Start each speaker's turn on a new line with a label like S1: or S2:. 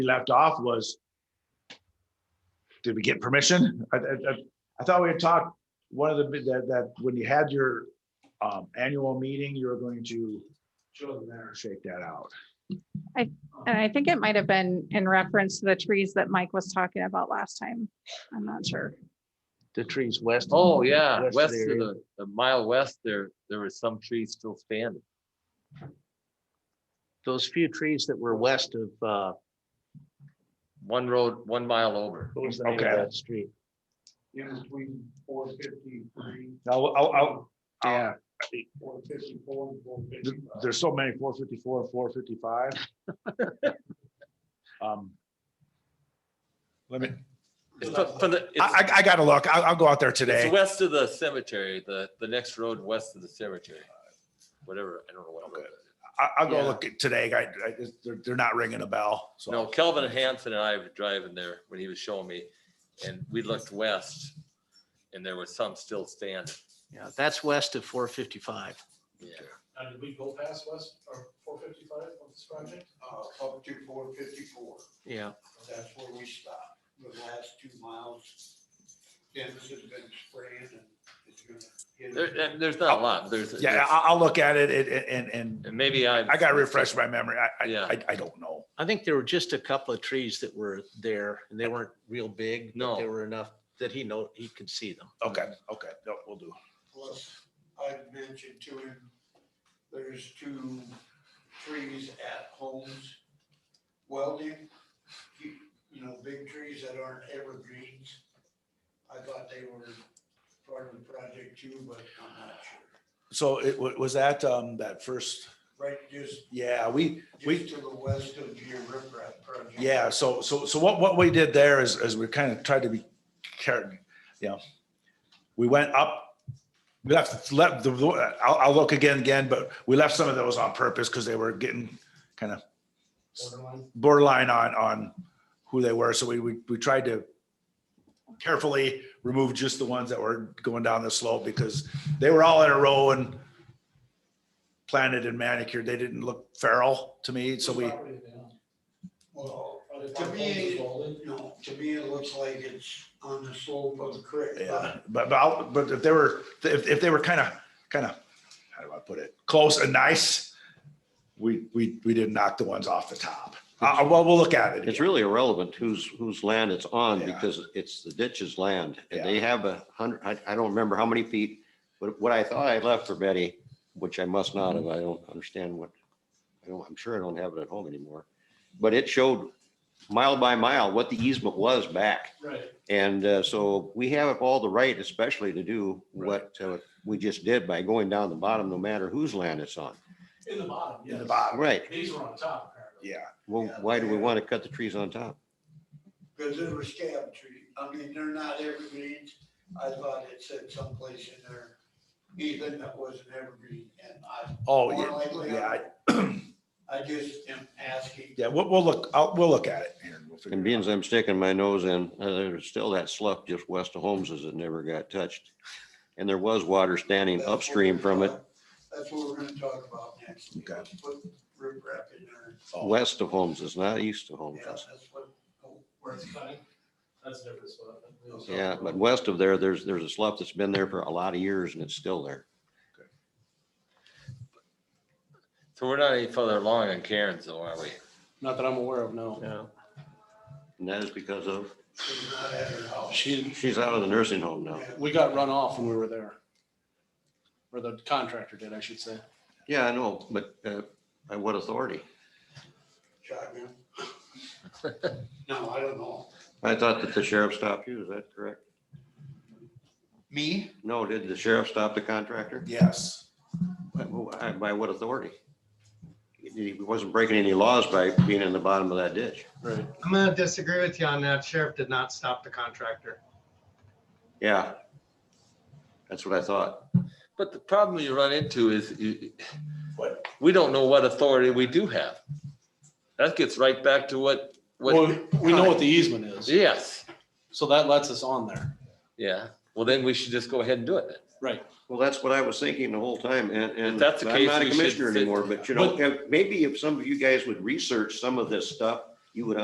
S1: we left off was, did we get permission? I, I, I- I thought we had talked, one of the, bit that, that when you had your um, annual meeting, you were going to shake that out.
S2: And I think it might have been in reference to the trees that Mike was talking about last time. I'm not sure.
S3: The trees west.
S4: Oh, yeah,
S3: of
S4: west
S3: the
S4: of
S3: area.
S4: the, a mile west there, there were some trees still standing.
S3: Those few trees that were west of, uh,
S4: One road, one mile over.
S3: what was the name of
S1: Okay.
S3: that street?
S5: in between four fifty-three,
S1: I'll, I'll, I'll,
S3: Yeah.
S5: four fifty-four, and four
S1: th-
S5: fifty-five.
S1: there's so many, four fifty-four, four fifty-five. Um, Let me,
S4: It's fro- from the,
S1: I,
S4: it's
S1: I- I gotta look. I'll, I'll go out there
S4: it's
S1: today.
S4: west of the cemetery, the, the next road west of the cemetery. Whatever, I don't know what. road it is.
S1: I, I'll go
S3: Yeah.
S1: look at today. I, I, just- they're, they're not ringing a bell, so.
S4: No, Kelvin Hanson and I were driving there when he was showing me, and we looked west, and there was some still standing.
S3: Yeah, that's west of four fifty-five.
S4: Yeah.
S5: Now, did we go past West, or four fifty-five on this project?
S6: uh, up to four fifty-four.
S3: Yeah.
S6: That's where we stopped, the last two miles. Dennis has been spraying and it's gonna. hit
S4: There, and there's not a lot, there's.
S1: Yeah, I, I'll look at it it- it- and, and,
S4: And maybe I.
S1: I gotta refresh my memory. I, I,
S4: Yeah.
S1: I- I don't know.
S3: I think there were just a couple of trees that were there and they weren't real big. but
S4: No.
S3: They were enough that he know, he could see them.
S1: Okay,
S4: Mm-hmm.
S1: okay, no, we'll do.
S6: Plus, I've mentioned to him, there's two trees at homes welding, you you know, big trees that aren't evergreens. I thought they were part of the project too, but I'm not sure.
S1: So it wa- was that, um, that first,
S6: Right, just,
S1: yeah, we, we,
S6: just to the west of your riprap project.
S1: yeah, so, so, so what, what we did there is, is we kind of tried to be careful, you know. We went up, we left, left, the I'll, I'll look again, again, but we left some of those on purpose because they were getting kind of
S6: Borderline.
S1: borderline on, on who they were. So we, we, we tried to carefully remove just the ones that were going down the slope because they were all in a row and planted and manicured. They didn't look feral to me. So we,
S6: Well, To me, no, to me, it looks like it's on the slope of the creek.
S1: yeah, but, but, I'll- but if they were, if, if they were kind of, kind of, how do I put it? Close and nice. We, we, we didn't knock the ones off the top. Uh, well, we'll look at it.
S7: It's
S1: again.
S7: really irrelevant whose, whose land it's on
S1: Yeah.
S7: because it's the ditch's land. And they have a hundred, I, I don't remember how many feet, but what I thought I left for Betty, which I must not have, I don't understand what, I don't, I'm sure I don't have it at home anymore. But it showed mile by mile what the easement was back.
S5: Right.
S7: And uh, so we have all the right especially to do what uh, we just did by going down the bottom, no matter whose land it's on.
S5: In the bottom,
S1: In the bottom,
S7: Right.
S5: These are on top, apparently.
S1: yeah.
S7: Well,
S6: Yeah.
S7: why do we want to cut the trees on top?
S6: Because they were scab trees. I mean, they're not evergreens. I thought it said someplace in there, Ethan, that was an evergreen and I.
S1: Oh,
S6: more
S1: yeah,
S6: likely,
S1: yeah. I-
S6: I just am asking.
S1: Yeah, we'll, we'll look, I'll, we'll look at it here. and we'll figure
S7: And
S1: it
S7: being
S1: out.
S7: as I'm sticking my nose in, uh, there's still that slough just west of Holmes's that never got touched. And there was water standing
S6: That's what
S7: upstream
S6: we're
S7: from it,
S6: talk- That's what we're gonna talk about next.
S1: Okay.
S6: Let's Put riprap in there.
S1: Oh.
S7: west of Holmes's, not east of
S6: Yeah,
S7: Holmes's.
S6: that's what, oh, where
S5: That's
S6: it's
S5: funny. That's different as well.
S7: Yeah, but west of there, there's, there's a slough that's been there for a lot of years and it's still there.
S4: So we're not any further along on Karen's though, are we?
S8: Not that I'm aware of, no.
S3: Yeah.
S7: And that is because of,
S6: it's not at her house.
S8: She,
S7: she's out of the nursing home now.
S6: Yeah.
S8: we got run off when we were there. Or the contractor did, I should say.
S7: Yeah, I know, but uh, by what authority?
S6: shotgun. No, I don't know.
S7: I thought that the sheriff stopped you, is that correct?
S6: Me?
S7: No, did the sheriff stop the contractor?
S1: Yes,
S7: By- By by what authority? He he wasn't breaking any laws by being in the bottom of that ditch.
S8: Right.
S9: I'm gonna disagree with you on that. Sheriff did not stop the contractor.
S7: Yeah. That's what I thought.
S4: But the problem you run into is you,
S1: What?
S4: we don't know what authority we do have. That gets right back to what,
S8: Well,
S4: what,
S8: we know what the easement is,
S4: yes,
S8: so that lets us on there.
S4: yeah. Well, then we should just go ahead and do it. then.
S7: Well, that's what I was thinking the whole time and, and.
S4: If that's the
S7: I'm
S4: case,
S7: not a
S4: we should
S7: commissioner
S4: sit-
S7: anymore, but you know, if- maybe if some of you guys would research some of this stuff, you would